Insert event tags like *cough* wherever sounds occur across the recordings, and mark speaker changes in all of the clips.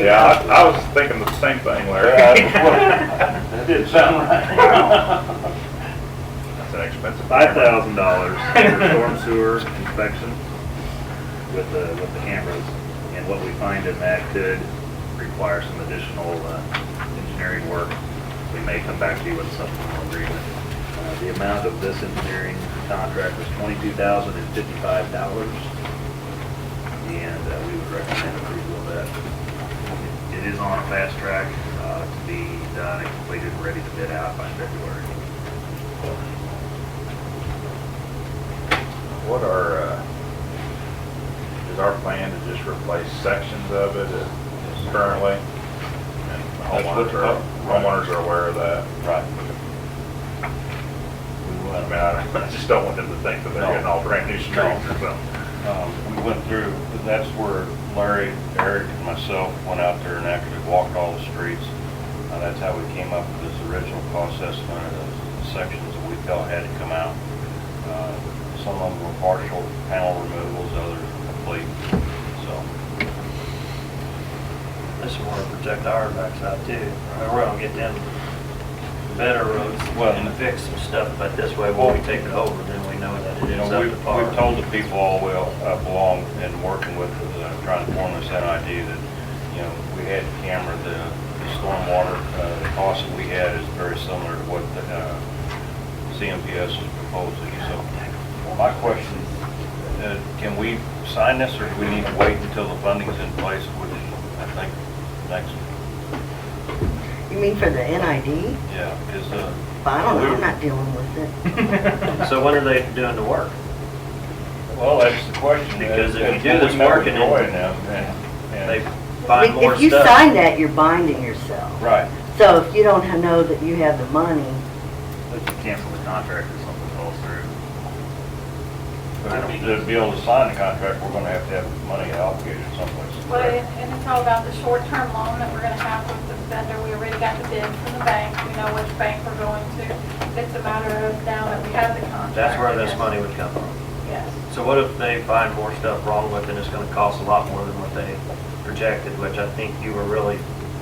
Speaker 1: Yeah, I, I was thinking the same thing, *laughs*
Speaker 2: Yeah,
Speaker 1: Larry.
Speaker 2: That didn't sound right.
Speaker 1: That's an expensive.
Speaker 3: Five thousand dollars for storm sewer inspection with the, with the cameras. And what we find in that could require some additional uh, engineering work. We may come back to you with a supplemental agreement. Uh, The amount of this engineering contract was twenty-two thousand and fifty-five dollars. And uh, we would recommend approval of that. It- It is on a fast track uh, to be done and completed, ready to bid out by February.
Speaker 1: What are, uh, is our plan to just replace sections of it uh, currently? And
Speaker 2: That's what-
Speaker 1: Homeowners are, homeowners are aware of that. Right. I mean, I *laughs* I just don't want them to think that they're getting all brand new streets or something.
Speaker 2: Um, We went through, that's where Larry, Eric, and myself went out there and actually walked all the streets. Uh, That's how we came up with this original cost estimate of those sections that we felt had to come out. Uh, Some of them were partial panel removals, others were complete, so.
Speaker 4: This is where we protect our backs out too. Or We're gonna get them better roads
Speaker 2: Well-
Speaker 4: and fix some stuff, but this way, when we take it over, then we know that it
Speaker 2: You
Speaker 4: is
Speaker 2: know,
Speaker 4: up
Speaker 2: we've,
Speaker 4: to par.
Speaker 2: we've told the people all the way up along and working with, uh, trying to form this idea that, you know, we had camera, the the stormwater, uh, the cost that we had is very similar to what the, uh, CMPS is proposing, so. My question, uh, can we sign this or do we need to wait until the funding's in place, which I think next,
Speaker 5: You mean for the NID?
Speaker 2: yeah, is, uh,
Speaker 5: I don't know, I'm not dealing with it.
Speaker 4: So when are they doing the work?
Speaker 2: well, that's the question.
Speaker 4: Because if you do
Speaker 2: Well, we
Speaker 4: this
Speaker 2: met with
Speaker 4: working
Speaker 2: Joy
Speaker 4: in-
Speaker 2: now, and- and-
Speaker 4: They find more
Speaker 5: If you
Speaker 4: stuff.
Speaker 5: sign that, you're binding yourself.
Speaker 2: Right.
Speaker 5: So if you don't ha- know that you have the money,
Speaker 3: We can cancel the contract if something falls through.
Speaker 2: But To be able to sign the contract, we're gonna have to have money allocated someplace.
Speaker 6: Well, and and it's all about the short-term loan that we're gonna have with the vendor. We already got the bid from the bank. We know which bank we're going to. It's a matter of now that we have the contract.
Speaker 4: That's where this
Speaker 6: yes.
Speaker 4: money would come from.
Speaker 6: Yes.
Speaker 4: So what if they find more stuff wrong with it, and it's gonna cost a lot more than what they projected, which I think you were really,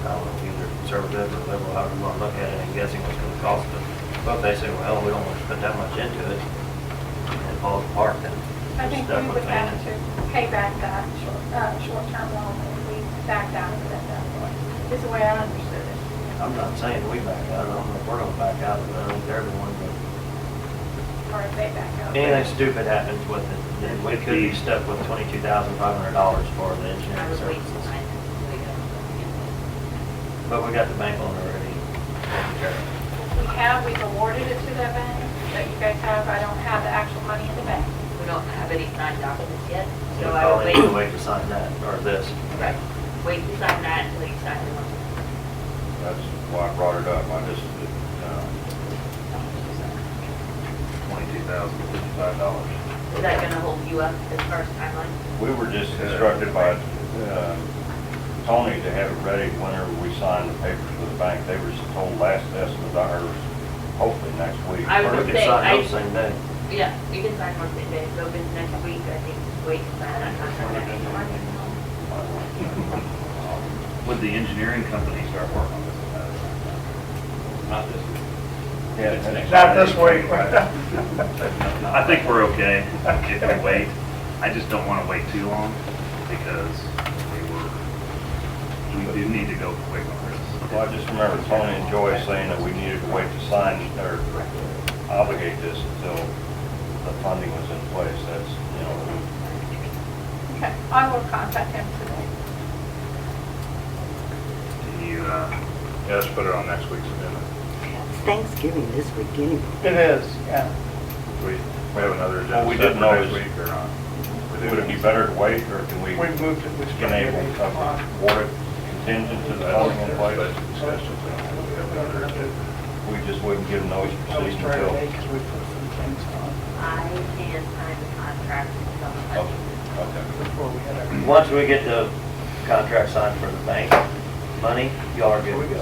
Speaker 4: I don't know, either conservative or liberal, however you wanna look at it, and guessing what's gonna cost them. But if they say, well, we don't want to put that much into it, and it falls apart, then
Speaker 6: I
Speaker 4: you're
Speaker 6: think
Speaker 4: stuck
Speaker 6: we
Speaker 4: with
Speaker 6: would
Speaker 4: paying
Speaker 6: have
Speaker 4: it.
Speaker 6: to pay back that short, uh, short-term loan if we backed out of it at that point, is the way I understood it.
Speaker 4: I'm not saying we back out, I don't know if we're gonna back out, but I think everyone, but
Speaker 6: Or if they back out.
Speaker 4: anything stupid happens with it, then we could be stuck with twenty-two thousand five hundred dollars for the
Speaker 7: I
Speaker 4: engineering
Speaker 7: was waiting till
Speaker 4: services.
Speaker 7: I, we got.
Speaker 4: But we got the bank loan already. taken care of.
Speaker 6: We have, we've awarded it to that bank that you guys have. I don't have the actual money in the bank.
Speaker 7: We don't have any signed documents yet,
Speaker 4: So we
Speaker 7: so I
Speaker 4: probably
Speaker 7: will
Speaker 4: need to
Speaker 7: wait,
Speaker 4: wait to sign that, or this.
Speaker 7: right, wait to sign that until you sign the one.
Speaker 2: That's why I brought it up, I just, uh,
Speaker 3: Twenty-two thousand.
Speaker 2: fifty-five dollars.
Speaker 7: Is that gonna hold you up as far as timeline?
Speaker 2: We were just instructed by, uh, Tony to have it ready whenever we sign the papers with the bank. They were just told last estimate, I heard, hopefully next week.
Speaker 7: I
Speaker 4: Or
Speaker 2: *laughs*
Speaker 7: was
Speaker 4: we
Speaker 7: gonna
Speaker 4: could
Speaker 7: say,
Speaker 4: sign those
Speaker 7: I-
Speaker 4: same day.
Speaker 7: Yeah, you can sign one thing, but open next week, I think, wait to sign that contract.
Speaker 3: Would the engineering company start working on this?
Speaker 2: Not
Speaker 3: at that time?
Speaker 2: this week. Yeah, it's next.
Speaker 1: Not this
Speaker 2: Friday. *laughs*
Speaker 1: week.
Speaker 2: Right.
Speaker 3: I think we're okay *laughs* if we wait. I just don't want to wait too long because we were, we do need to go quick on this.
Speaker 2: Well, I just remember Tony and Joy saying that we needed to wait to sign or obligate this until the funding was in place. That's, you know,
Speaker 6: Okay, I will contact him today.
Speaker 3: Can you, uh,
Speaker 1: Yeah, let's put it on next week's agenda.
Speaker 5: it's Thanksgiving this week anyway.
Speaker 8: It is, yeah.
Speaker 1: We, we have another agenda
Speaker 2: Well, we
Speaker 1: set
Speaker 2: didn't
Speaker 1: for
Speaker 2: know
Speaker 1: next
Speaker 2: is-
Speaker 1: week or not. We
Speaker 2: Would it be
Speaker 1: didn't.
Speaker 2: better to wait, or can we
Speaker 8: We moved it, we
Speaker 2: can
Speaker 8: started
Speaker 2: able
Speaker 8: it.
Speaker 2: to award it contingent to the
Speaker 1: That's-
Speaker 2: funding in
Speaker 1: that's
Speaker 2: place?
Speaker 1: discussions. We have another agenda.
Speaker 2: We just wouldn't give notice
Speaker 8: I was
Speaker 2: proceeding
Speaker 8: trying to
Speaker 2: until...
Speaker 8: make, because we put some things on
Speaker 7: I can sign the contract until the
Speaker 2: Oh,
Speaker 7: budget.
Speaker 2: Okay.
Speaker 8: before we had our.
Speaker 4: Once we get the contract signed for the bank money, y'all are good to go.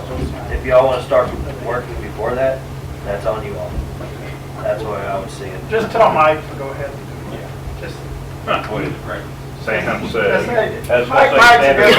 Speaker 4: If y'all wanna start working before that, that's on you all. That's the way I would see it.
Speaker 8: Just tell Mike to go ahead and do it. Just,
Speaker 2: Wait, right.
Speaker 1: Sam
Speaker 8: that's
Speaker 1: said.
Speaker 8: it.
Speaker 2: That's what
Speaker 8: Mike-
Speaker 2: they
Speaker 8: Mike's a
Speaker 2: said.
Speaker 8: good